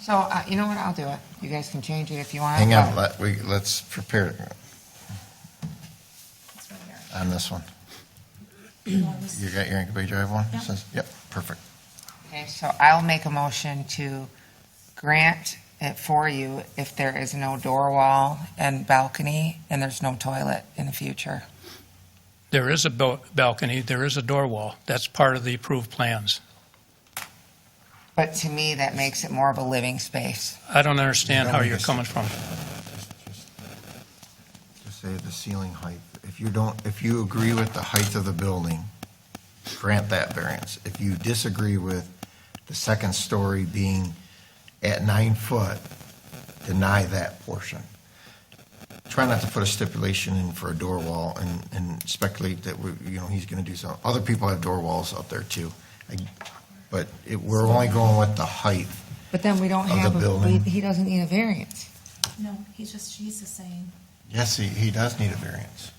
So, uh, you know what, I'll do it. You guys can change it if you want. Hang on, but- let, we, let's prepare It's right here. on this one. You got your Bay Drive one? Says- Yep, perfect. Okay, so I'll make a motion to grant it for you if there is no door wall and balcony, and there's no toilet in the future. There is a bal- balcony, there is a door wall. That's part of the approved plans. But to me, that makes it more of a living space. I don't understand You how don't you're understand. coming from. Just say the ceiling height. If you don't, if you agree with the height of the building, grant that variance. If you disagree with the second story being at nine foot, deny that portion. Try not to put a stipulation in for a door wall and, and speculate that, we- you know, he's going to do something. Other people have door walls out there too. I- But it, we're only going with the height. But then we don't Of the have, a- we- building. he doesn't need a variance. No, he's just, she's just saying. Yes, he, he does need a variance.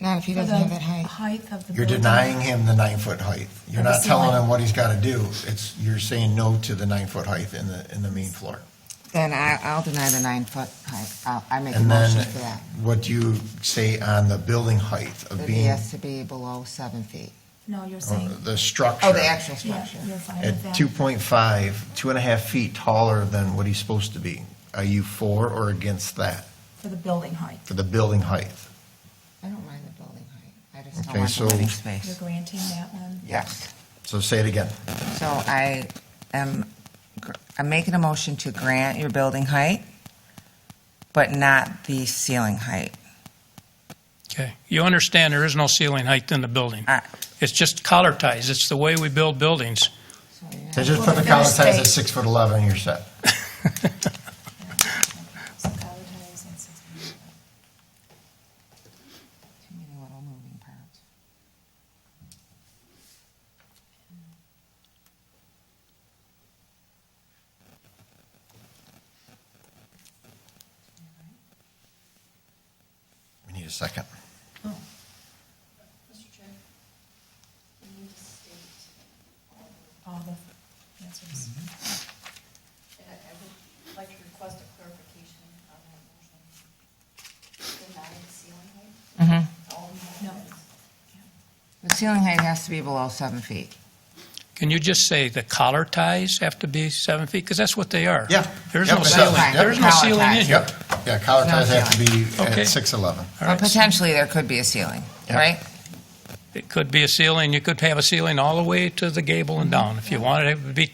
Not if he for doesn't the have that height. Height of the. You're building. denying him the nine-foot height. You're Or the not telling ceiling. him what he's got to do. It's, you're saying no to the nine-foot height in the, in the main floor. Then I, I'll deny the nine-foot height. I'll, I make a And motion then for that. what do you say on the building height of It being, has to be below seven feet. No, you're uh, saying, the structure? Oh, the actual yeah, structure. you're fine with At that. 2.5, two and a half feet taller than what he's supposed to be. Are you for or against that For the building height, for the building height? I don't mind the building height. I just don't Okay, want the so- living you're space. granting that one. Yes. So say it again. So I am, gr- I'm making a motion to grant your building height, but not the ceiling height. Okay. You understand there is no ceiling height in the building. Ah. It's just collar ties. It's the way we build buildings. So you're So not- just Well, put the the finished collar ties at space- six foot 11, you're set. So color ties and six feet. Too many little moving parts. We need a second. Mr. Chair, we need to state, All the answers. Mm-hmm. and I I would like to request a clarification on that motion. Deny the ceiling height? Mm-hmm. All the No. others. The ceiling height has to be below seven feet. Can you just say the collar ties have to be seven feet? Because that's what they are. Yeah. There's Yep, no that's ceiling, fine. Yep. there's no Collar ceiling in ties. here. Yep, yeah, collar No ties have to be Okay. at 6'11. All But right. potentially, there could be a ceiling, Yeah. right? It could be a ceiling, you could have a ceiling all the way to the gable and down. If you wanted, it would be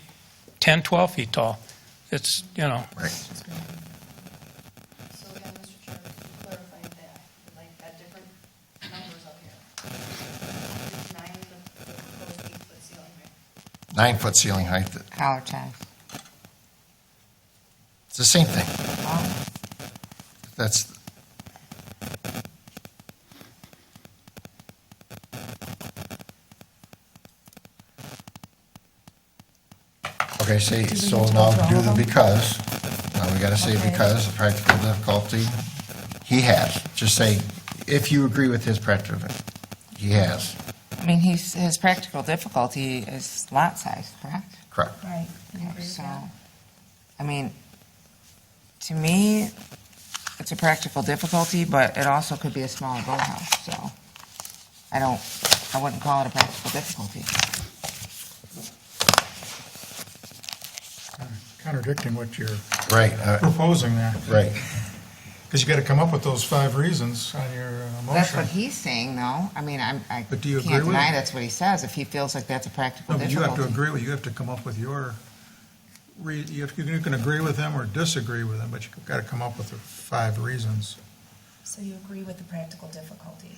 10, 12 feet tall. It's, you know, Right. So again, Mr. Chair, if you clarify that, I'd like that different numbers up here. Denying the the proposed eight-foot ceiling height. Nine-foot ceiling height, Collar ties. it's the same thing. Well, That's, okay, see, we so need to now go through do all the of them? because. Now we gotta say Okay. because, the practical difficulty he has. Just say, if you agree with his practical, he has, I mean, he's, his practical difficulty is lot size, correct? correct. Right. you agree with So, that? I mean, to me, it's a practical difficulty, but it also could be a smaller boathouse, so I don't, I wouldn't call it a practical difficulty. contradicting what you're Right, uh, proposing there. right. Because you got to come up with those five reasons on your uh, That's what motion. he's saying, though. I mean, I'm, I But do you can't agree with deny it? that's what he says, if he feels like that's a practical No, but you have to difficulty. agree with, you have to come up with your, re- you have- you can agree with them or disagree with them, but you've got to come up with the five reasons. So you agree with the practical difficulty?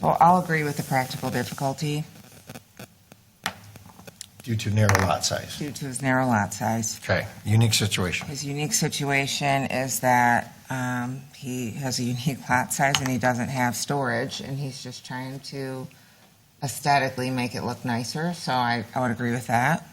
Well, I'll agree with the practical difficulty Due to narrow lot size. due to his narrow lot size. Okay, unique situation. His unique situation is that um, he has a unique lot size and he doesn't have storage, and he's just trying to aesthetically make it look nicer, so I, I would agree with that.